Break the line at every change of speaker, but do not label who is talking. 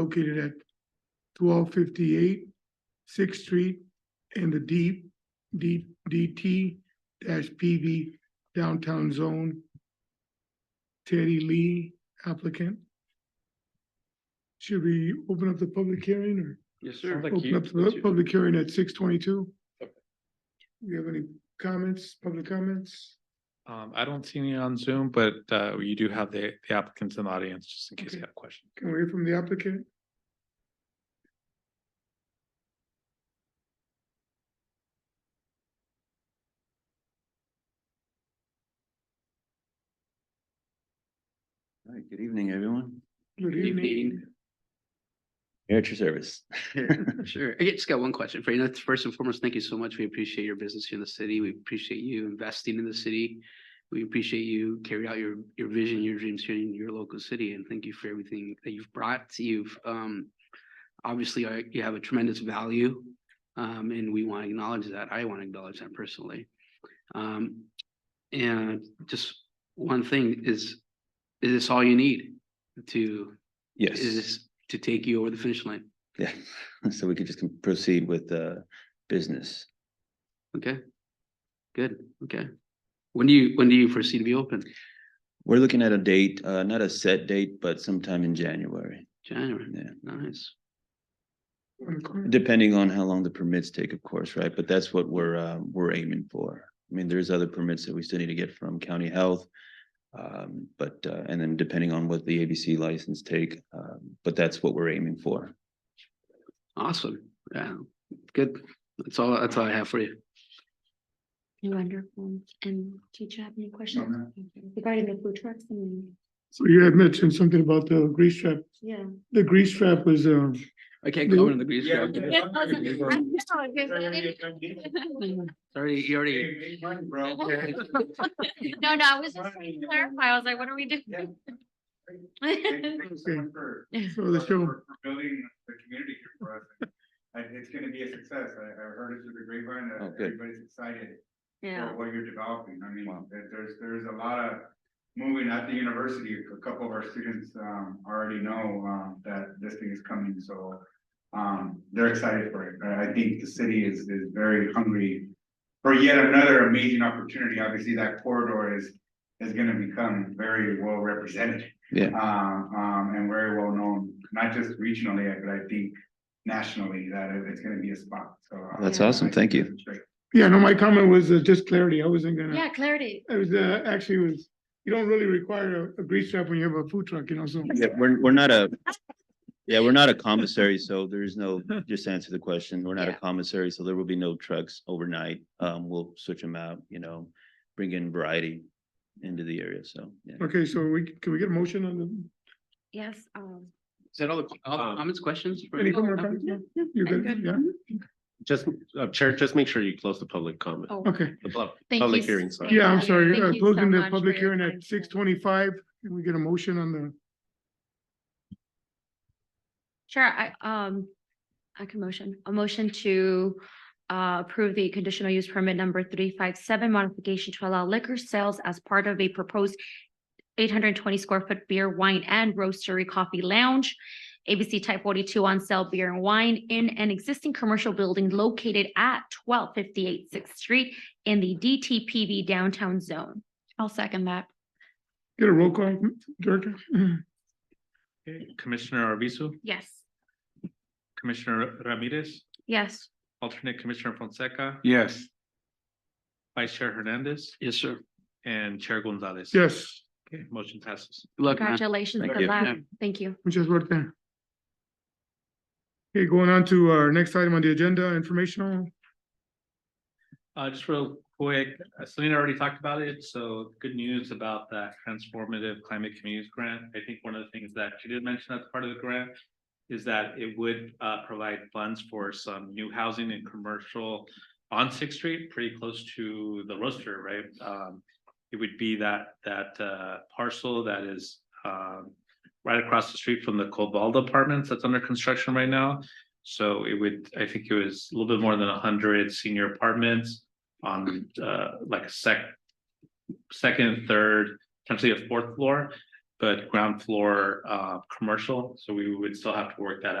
located at twelve fifty-eight Sixth Street in the D, D, DT dash PV downtown zone. Teddy Lee applicant. Should we open up the public hearing or?
Yes, sir.
Open up the Oh, public hearing at six twenty-two. Do
Okay.
you have any comments, public comments?
Um, I don't see any on Zoom, but, uh, you do have the the applicants in the audience, just in case you
Okay.
have questions.
Can we hear from the applicant?
All right, good evening, everyone.
Good
evening.
evening.
Here at your service.
Sure. I just got one question for you. That's First and foremost, thank you so much. We appreciate your business here in the city. We appreciate you investing in the city. We appreciate you carry out your, your vision, your dreams here in your local city, and thank you for everything that you've brought. You've, um, obviously, uh, you have a tremendous value, um, and we want to acknowledge that. I want to acknowledge that personally. Um, and just one thing is, is this all you need to,
Yes,
is this to take you over the finish line?
yeah, so we could just con- proceed with uh business.
Okay. Good, okay. When do you, when do you foresee to be open?
We're looking at a date, uh not a set date, but sometime in January,
January,
yeah.
nice.
On the corner.
Depending on how long the permits take, of course, right? But that's what we're uh we're aiming for. I mean, there's other permits that we still need to get from county health. Um, but uh and then depending on what the ABC license take, um, but that's what we're aiming for.
Awesome, yeah, good. That's all, that's all I have for you.
Wonderful. And did you have any questions regarding the food trucks? and-
So you had mentioned something about the grease trap.
Yeah.
The grease trap was, um,
I can't
go
go
in
in the grease
Yeah,
trap.
trap.
Yeah, I was- I know,
Sorry,
I
you
was-
Sorry, you already.
Hey, big one, bro.
No, no, I was just trying to clarify. I was like, what are we
Yeah.
doing?
Thank- thank you so much for-
so the
for-
show,
for- for Building the community here for us. And it's gonna be a success. I, I heard it through the grapevine.
Oh,
that
good.
Everybody's excited
Yeah.
for what you're developing. I mean,
Wow.
there- there's, there's a lot of moving at the university. A couple of our students, um, already know, um, that this thing is coming, so um, they're excited for it. I I think the city is, is very hungry for yet another amazing opportunity. Obviously, that corridor is, is gonna become very well represented.
Yeah.
Um, um, and very well known, not just regionally, but I think nationally, that it- it's gonna be a spot, so. uh,
That's
I
awesome.
think
Thank you.
that's great.
yeah, no, my comment was uh, just clarity. I wasn't gonna,
Yeah, clarity.
I was, uh, actually was, you don't really require a, a grease trap when you have a food truck, you know, so.
Yeah, we're, we're not a, yeah, we're not a commissary, so there is no, just to answer the question, we're not a
Yeah.
commissary, so there will be no trucks overnight. Um, we'll switch them out, you know, bring in variety into the area, so, yeah.
Okay, so we, can we get a motion on the,
Yes. um,
Is that all the all the comments, questions? for-
any comment? on that? Yeah, You
Oh, I'm
good,
good. Mm-hmm.
yeah,
Just, uh, Chair, just make sure you close the public comment.
Oh,
okay.
The pub-
thank you
public
s-
hearing, sorry.
thank
Yeah, I'm
you.
sorry,
Thank
uh,
you so
closing the
much for
public
your
hearing
time
at
today.
six twenty-five, can we get a motion on the,
Sure, I, um, I can motion, a motion to uh, approve the conditional use permit number three five seven modification to allow liquor sales as part of a proposed eight hundred and twenty square foot beer, wine and roastery coffee lounge. ABC type forty-two on sale beer and wine in an existing commercial building located at twelve fifty-eight Sixth Street in the DTPV downtown zone. I'll second that.
get a roll call, Director?
Okay, Commissioner Arvizo,
Yes.
Commissioner Ramirez,
Yes.
alternate Commissioner Fonseca,
Yes.
Vice Chair Hernandez,
Yes, sir.
and Chair Gonzalez.
Yes,
Okay, motion passes.
Good luck, man.
Congratulations.
Thank
Good
you.
luck. Thank you.
muchas suerte. Okay, going on to our next item on the agenda, informational,
Uh, just real quick, uh, Selena already talked about it, so good news about that transformative climate communities grant. I think one of the things that she did mention as part of the grant is that it would, uh, provide funds for some new housing and commercial on Sixth Street, pretty close to the roaster, right? Um, it would be that, that, uh, parcel that is, um, right across the street from the Cobalt Apartments that's under construction right now. So it would, I think it was a little bit more than hundred senior apartments on uh like a sec. Second, third, potentially a fourth floor. but ground floor, uh, commercial, so we would still have to work that